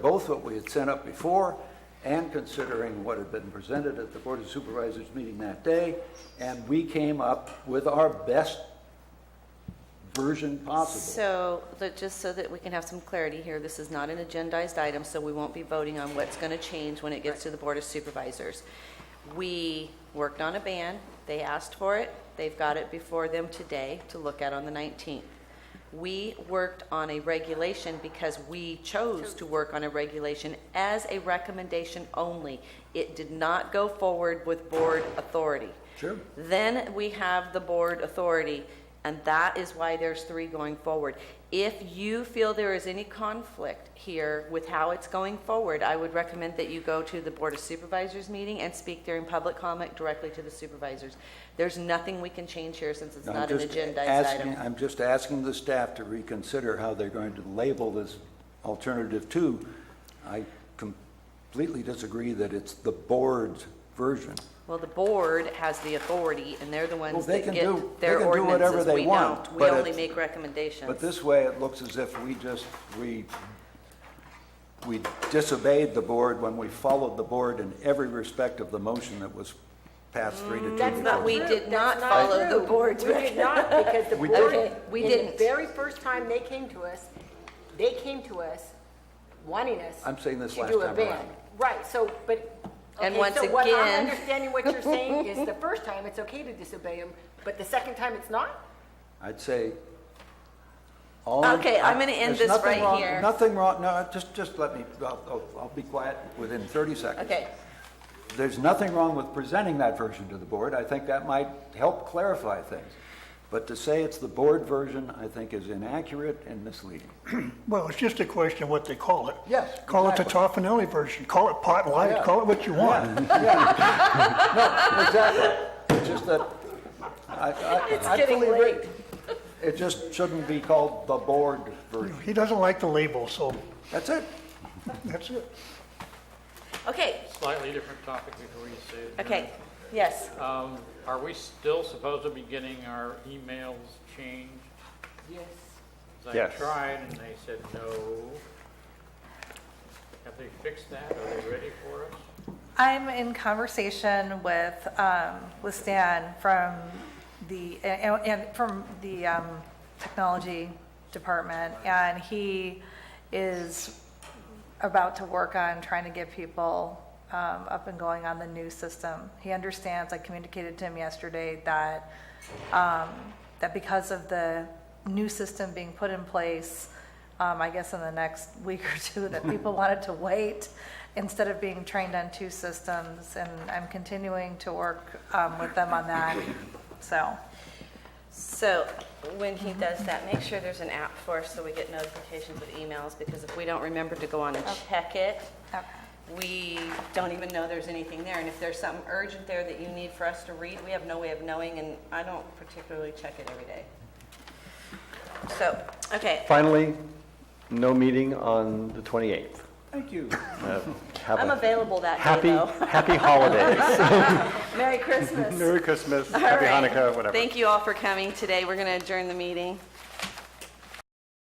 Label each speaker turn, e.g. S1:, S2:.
S1: both what we had sent up before and considering what had been presented at the Board of Supervisors meeting that day, and we came up with our best version possible.
S2: So, that- just so that we can have some clarity here, this is not an agendized item, so we won't be voting on what's going to change when it gets to the Board of Supervisors. We worked on a ban, they asked for it, they've got it before them today to look at on the 19th. We worked on a regulation because we chose to work on a regulation as a recommendation only. It did not go forward with board authority.
S1: Sure.
S2: Then we have the board authority, and that is why there's three going forward. If you feel there is any conflict here with how it's going forward, I would recommend that you go to the Board of Supervisors meeting and speak during public comment directly to the supervisors. There's nothing we can change here since it's
S1: I'm
S2: not an
S1: just
S2: agendized
S1: asking-
S2: item.
S1: I'm just asking the staff to reconsider how they're going to label this alternative two. I completely disagree that it's the board's version.
S2: Well, the board has the authority, and they're the
S1: Well,
S2: ones
S1: they
S2: that
S1: can do-
S2: get
S1: they
S2: their
S1: can do whatever
S2: ordinances.
S1: they
S2: We
S1: want,
S2: don't. We
S1: but
S2: only
S1: it's-
S2: make recommendations.
S1: But this way, it looks as if we just, we, we disobeyed the board when we followed the board in every respect of the motion that was passed three to two.
S2: That's not-
S1: before.
S2: we did not
S3: That's
S2: follow the
S3: true.
S2: board's
S3: We did not, because the
S1: We
S3: board,
S2: didn't. Okay, we
S3: in the
S2: didn't.
S3: very first time they came to us, they came to us wanting us.
S1: I'm saying this
S3: to
S1: last
S3: do a
S1: time
S3: ban.
S1: around.
S3: Right, so, but,
S2: And
S3: okay,
S2: once
S3: so what
S2: again-
S3: I'm understanding what you're saying is the first time it's okay to disobey them, but the second time it's not?
S1: I'd say all.
S2: Okay, I'm gonna end
S1: There's
S2: this
S1: nothing
S2: right
S1: wrong-
S2: here.
S1: Nothing wrong, no, just, just let me, I'll, I'll- I'll be quiet within 30 seconds.
S2: Okay.
S1: There's nothing wrong with presenting that version to the board. I think that might help clarify things. But to say it's the board version, I think is inaccurate and misleading.
S4: Well, it's just a question of what they call it.
S1: Yes,
S4: Call it the
S1: exactly.
S4: Toffanelli version, call it pot
S1: Yeah.
S4: light, call it what you want.
S1: No, exactly. It's just that, I, I, I
S2: getting
S1: fully agree. It just shouldn't be called the board version.
S4: He doesn't like the label, so
S1: That's it.
S4: that's it.
S2: Okay,
S5: Slightly different topic before you say it.
S2: okay, yes.
S5: Um, Are we still supposed to be getting our emails changed?
S3: Yes.
S5: 'Cause
S6: Yes.
S5: I tried and they said no. Have they fixed that? Are they ready for us?
S7: I'm in conversation with, um, with Stan from the, and, and from the, um, technology department, and he is about to work on trying to get people, um, up and going on the new system. He understands, I communicated to him yesterday that, um, that because of the new system being put in place, um, I guess in the next week or two, that people wanted to wait instead of being trained on two systems. And I'm continuing to work um, with them on that. So,
S2: So when he does that, make sure there's an app for us so we get notifications with emails, because if we don't remember to go on and check it,
S7: okay.
S2: we don't even know there's anything there. And if there's something urgent there that you need for us to read, we have no way of knowing, and I don't particularly check it every day. So, okay,
S6: Finally, no meeting on the 28th.
S1: Thank you.
S6: Have
S2: I'm
S6: a
S2: available that
S6: Happy,
S2: day, though.
S6: happy holidays.
S2: Merry Christmas.
S6: Merry Christmas,
S2: All
S6: happy
S2: right.
S6: Hanukkah, whatever.
S2: Thank you all for coming today. We're going to adjourn the meeting.